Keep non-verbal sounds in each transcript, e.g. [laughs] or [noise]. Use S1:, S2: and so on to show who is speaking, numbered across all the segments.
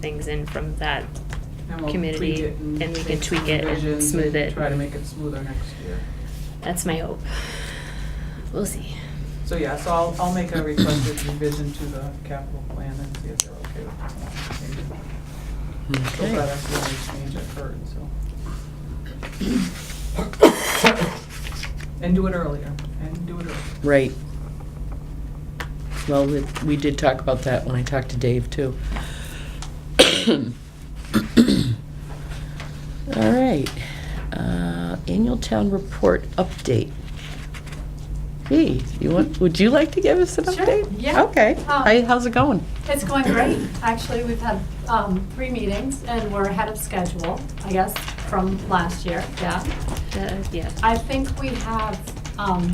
S1: things in from that.
S2: And we'll
S1: community,
S2: tweak it
S1: and we can
S2: make some
S1: tweak it and
S2: revisions
S1: smooth it.
S2: Try to make it smoother next year.
S1: That's my hope. We'll see.
S2: So yeah, so I'll, I'll make a requested revision to the capital plan and see if they're okay with that. So far,
S3: Okay,
S2: that's the only change I've heard, so. And do it earlier, and do it earlier.
S3: right. Well, we- we did talk about that when I talked to Dave, too. [coughs] All right, uh, annual town report update. Hey, you want, would you like to give us an
S4: Sure,
S3: update?
S4: yeah.
S3: Okay,
S4: Um,
S3: Hi, how's it going?
S4: It's going great. Actually, we've had um, three meetings and we're ahead of schedule, I guess, from last year, yeah.
S1: Uh, yeah.
S4: I think we have um,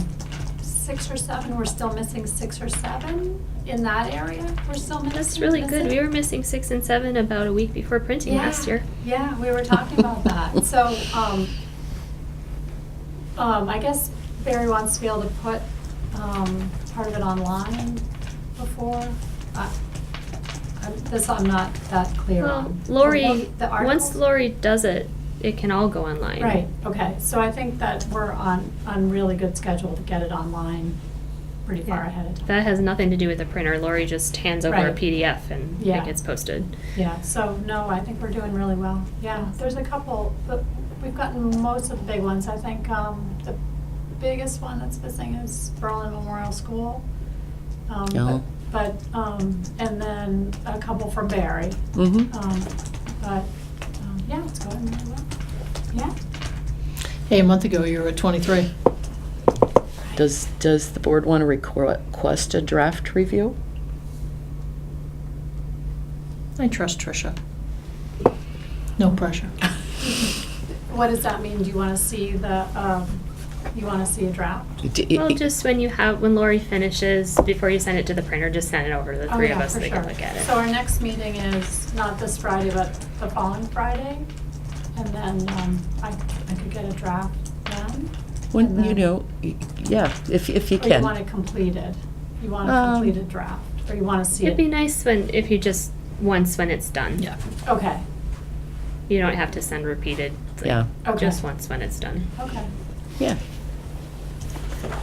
S4: six or seven, we're still missing six or seven in that area. We're still missing.
S1: That's really good. We
S4: missing.
S1: were missing six and seven about a week before printing
S4: Yeah,
S1: last year.
S4: Yeah, we were talking about
S1: [laughs]
S4: that. So, um, um, I guess Barry wants to be able to put, um, part of it online before. I- I'm- This I'm not that clear
S1: Well,
S4: on.
S1: Lori,
S4: The
S1: once
S4: articles?
S1: Lori does it, it can all go online.
S4: Right, okay. So I think that we're on, on really good schedule to get it online pretty far
S1: Yeah.
S4: ahead of time.
S1: That has nothing to do with the printer. Lori just hands over a
S4: Right.
S1: PDF and it
S4: Yeah.
S1: gets posted.
S4: Yeah, so, no, I think we're doing really well. Yeah, there's a couple, but we've gotten most of the big ones. I think um, the biggest one that's missing is Berlin Memorial School. Um, but-
S3: Oh.
S4: But, um, and then a couple for Barry.
S3: Mm-hmm.
S4: Um, But, um, yeah, it's going really well. Yeah.
S5: Hey, a month ago, you were at 23.
S3: Does, does the board want to request a draft review?
S5: I trust Tricia. No pressure.
S4: What does that mean? Do you want to see the, um, you want to see a draft?
S3: D-
S1: Well, just when you have, when Lori finishes, before you send it to the printer, just send it over to the
S4: Oh,
S1: three of
S4: yeah,
S1: us so
S4: for
S1: we can
S4: sure.
S1: look at it.
S4: So our next meeting is not this Friday, but the following Friday. And then um, I I could get a draft then.
S3: When,
S4: and
S3: you
S4: then-
S3: know, y- yeah, if, if you
S4: Or Oh, you
S3: can.
S4: want it completed? You want a
S3: Um,
S4: completed draft? Or you want to see
S1: It'd be
S4: it?
S1: nice when, if you just, once when it's done.
S4: Okay,
S1: You don't have to send repeated. It's like,
S3: Yeah.
S4: Okay.
S1: Just once when it's done.
S4: okay,
S3: Yeah.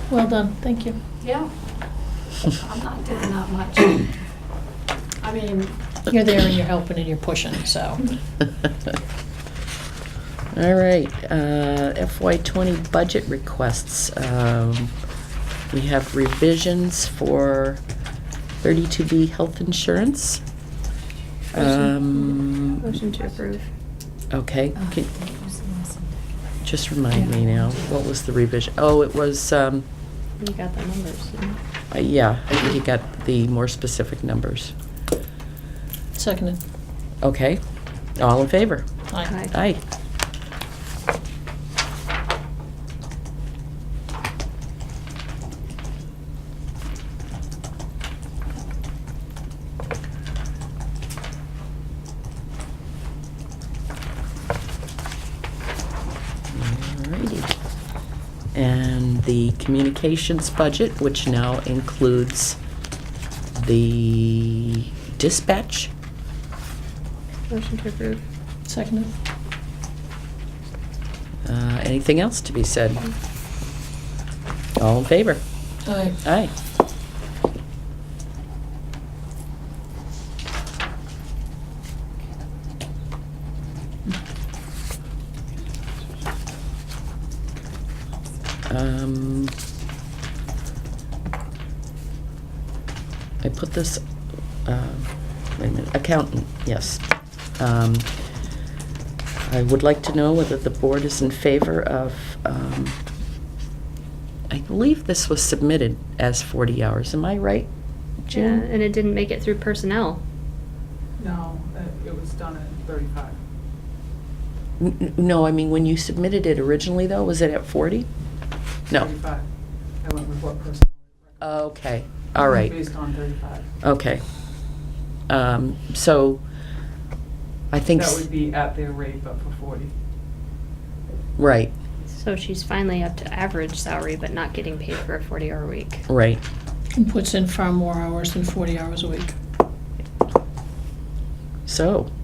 S5: Well done, thank you.
S4: yeah. I'm not doing
S3: [coughs]
S4: that much. I mean,
S5: You're there and you're helping and you're pushing, so.
S3: All right, uh, FY twenty budget requests. Um, We have revisions for thirty-two B health insurance. Um,
S1: Motion to Oh. approve.
S3: Okay, can- just remind me now, what was the revision? Oh, it was, um,
S1: You got the numbers.
S3: uh, yeah, I think you got the more specific numbers.
S5: Seconded.
S3: Okay, all in favor?
S5: Aye.
S3: Aye. Alrighty. And the communications budget, which now includes the dispatch.
S1: Motion to approve.
S5: Seconded.
S3: Uh, Anything else to be said? All in favor?
S5: Aye.
S3: Aye. Um, I put this, uh, wait a minute, accountant, yes. Um, I would like to know whether the board is in favor of um, I believe this was submitted as 40 hours, am I right?
S1: Yeah,
S3: June?
S1: and it didn't make it through personnel.
S2: No, uh, it was done at thirty-five.
S3: N- n- No, I mean, when you submitted it originally, though, was it at 40? No.
S2: Thirty-five. I went with what person.
S3: Okay, all right,
S2: Based on thirty-five.
S3: okay. Um, So, I think,
S2: That
S3: s-
S2: would be at their rate, but for forty.
S3: right,
S1: So she's finally up to average salary, but not getting paid for a 40 hour week.
S3: right.
S5: And puts in far more hours than 40 hours a week.
S3: So,